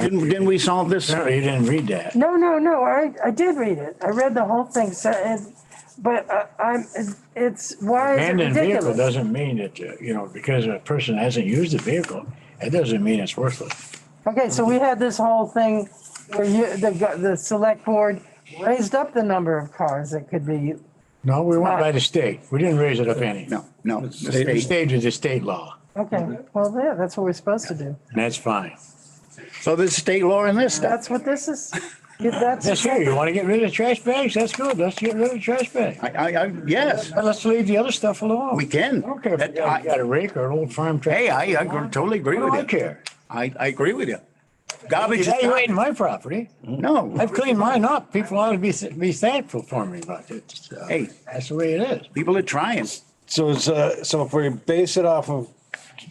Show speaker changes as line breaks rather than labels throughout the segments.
Didn't, didn't we solve this?
No, you didn't read that.
No, no, no, I, I did read it. I read the whole thing, so, and, but I- I'm, it's, why is it
Abandoned vehicle
ridiculous?
doesn't mean that, uh, you know, because a person hasn't used the vehicle, that doesn't mean it's worthless.
Okay, so we had this whole thing where you, the, go- the select board raised up the number of cars that could be,
No, we went by the state. We didn't raise it up any.
No, no. the
The
state-
state is the state law,
okay, well, yeah, that's what we're supposed to do.
and that's fine.
So there's state law in this stuff.
That's what this is, Yeah, that's.
That's here, you wanna get rid of the trash bags? That's good. Let's get rid of the trash bags.
I, I, I, yes,
But let's leave the other stuff alone.
we
I
can.
don't care if you got you got a rake or an old farm
Hey,
tractor.
I, I totally agree
I
with
don't
you.
care.
I, I agree with you. Garbage is,
That ain't my property.
no,
I've cleaned mine up. People ought to be, be thankful for me, but it's, uh,
Hey.
that's the way it is.
people are trying.
So it's, uh, so if we base it off of,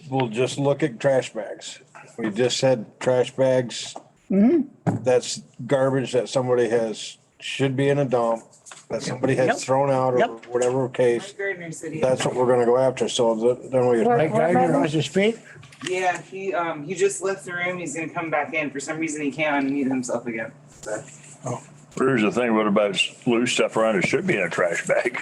we'll just look at trash bags. If We just said trash bags.
Mm-hmm.
That's garbage that somebody has, should be in a dump, that somebody
Yep.
has thrown out or
Yep.
whatever case.
Gardner City.
That's what we're gonna go after, so the- then we.
Right.
Mike Gardner wants to speak?
Yeah, he um he just left the room. He's gonna come back in. For some reason, he can't unmute himself again. So.
Here's the thing, what about loose stuff around, it should be in a trash bag.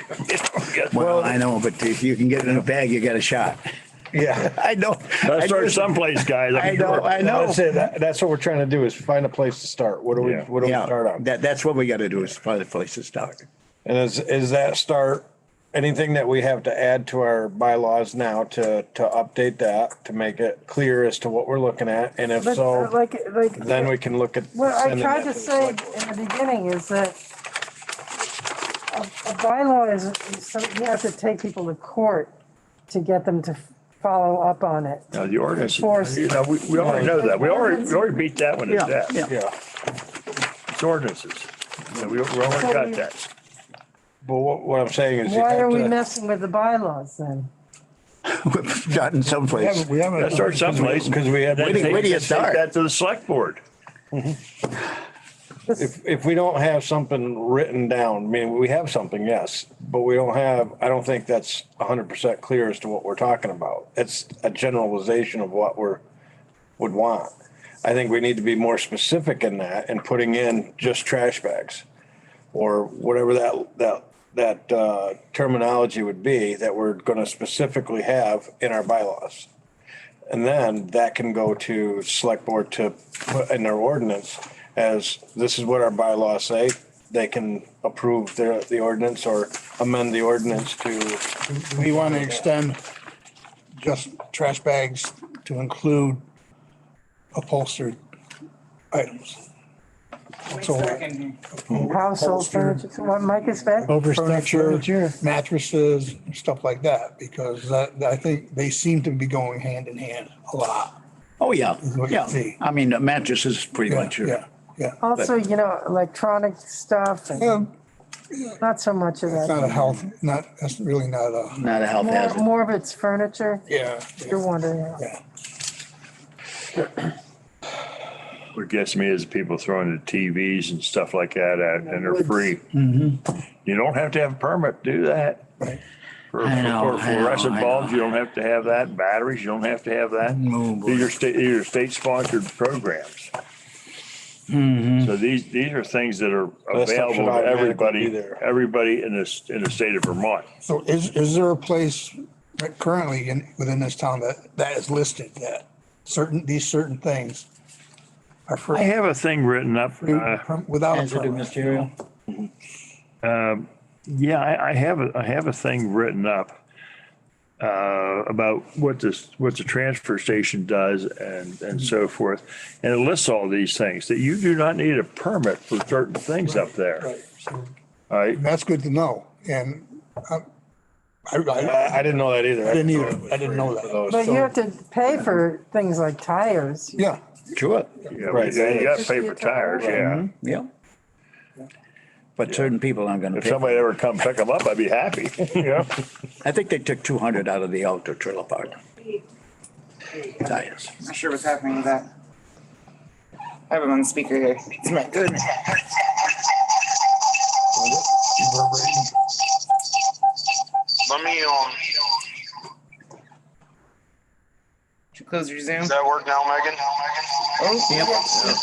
Well, I know, but if you can get it in a bag, you got a shot.
Yeah.
I know.
That
I
starts
just-
someplace, guys.
I know, I know.
That's it. That- That's what we're trying to do is find a place to start. What do we,
Yeah.
what do we
Yeah,
start on?
That, that's what we gotta do is find a place to start.
And is, is that start, anything that we have to add to our bylaws now to, to update that, to make it clear as to what we're looking at? And if
But,
so,
uh, like, like.
then we can look at.
What I
sending
tried to
that the
say in
select-
the beginning is that a a bylaw is, is some- you have to take people to court to get them to follow up on it.
Now, the ordinance,
Force.
you know, we, we already know that. We already, we already beat that one to
Yeah, yeah.
death.
Yeah,
It's ordinances. So we, we already got that.
but what, what I'm saying is. you
Why
have
are we
to-
messing with the bylaws then?
Not in some place.
We haven't.
That starts someplace.
Because we had,
Then
do you-
take-
where do you
take
start?
That to the select board.
if, if we don't have something written down, I mean, we have something, yes, but we don't have, I don't think that's hundred percent clear as to what we're talking about. It's a generalization of what we're, would want. I think we need to be more specific in that and putting in just trash bags. Or whatever that, that, that uh, terminology would be that we're gonna specifically have in our bylaws. And then that can go to select board to put in their ordinance as this is what our bylaws say. They can approve their, the ordinance or amend the ordinance to,
We want to extend just trash bags to include upholstered items.
Wait
So-
a second.
Household furniture, what Mike is back?
Oh.
Overstuffed furniture.
Furniture, mattresses, stuff like that, because that, that- I think they seem to be going hand in hand a lot.
Oh, yeah,
what you
yeah.
see.
I mean, a mattress is pretty
Yeah,
much
yeah,
your,
yeah.
Also, you know, electronic stuff and
Yeah,
not so much of
It's
that.
not a health, not, that's really not a,
not a health
More,
hazard.
more of it's furniture,
yeah.
you're wondering.
yeah.
What gets me is people throwing the TVs and stuff like that out and they're free.
Mm-hmm.
You don't have to have a permit to do that.
Right.
For
I know,
for
I know, I
fluorescent
know.
bulbs, you don't have to have that. Batteries, you don't have to have that. These are state, these are state-sponsored programs. So these, these are things that are
That stuff should
available to
automatically be
everybody,
there.
everybody in this, in the state of Vermont.
So is, is there a place right currently in, within this town that, that is listed that certain, these certain things are for,
I have a thing written up. uh,
without a
Hazardous
permit?
material.
Yeah, I, I have a, I have a thing written up uh, about what this, what the transfer station does and, and so forth. And it lists all these things that you do not need a permit for certain things up there.
Right, so
All right.
That's good to know, and um, I, I,
I, I didn't know that either.
I didn't either, I didn't know that.
But you have to pay for things like tires.
Yeah,
Sure,
You know,
Right.
You got to pay for tires, yeah.
yeah. But certain people aren't gonna
If
pay.
somebody ever come pick them up, I'd be happy, you know?
I think they took two hundred out of the outdoor trailer park. Tires.
I'm not sure what's happening with that. I have him on speaker here. It's my goodness.
Let me, um,
Should close your Zoom.
does that work now, Megan?
Oh,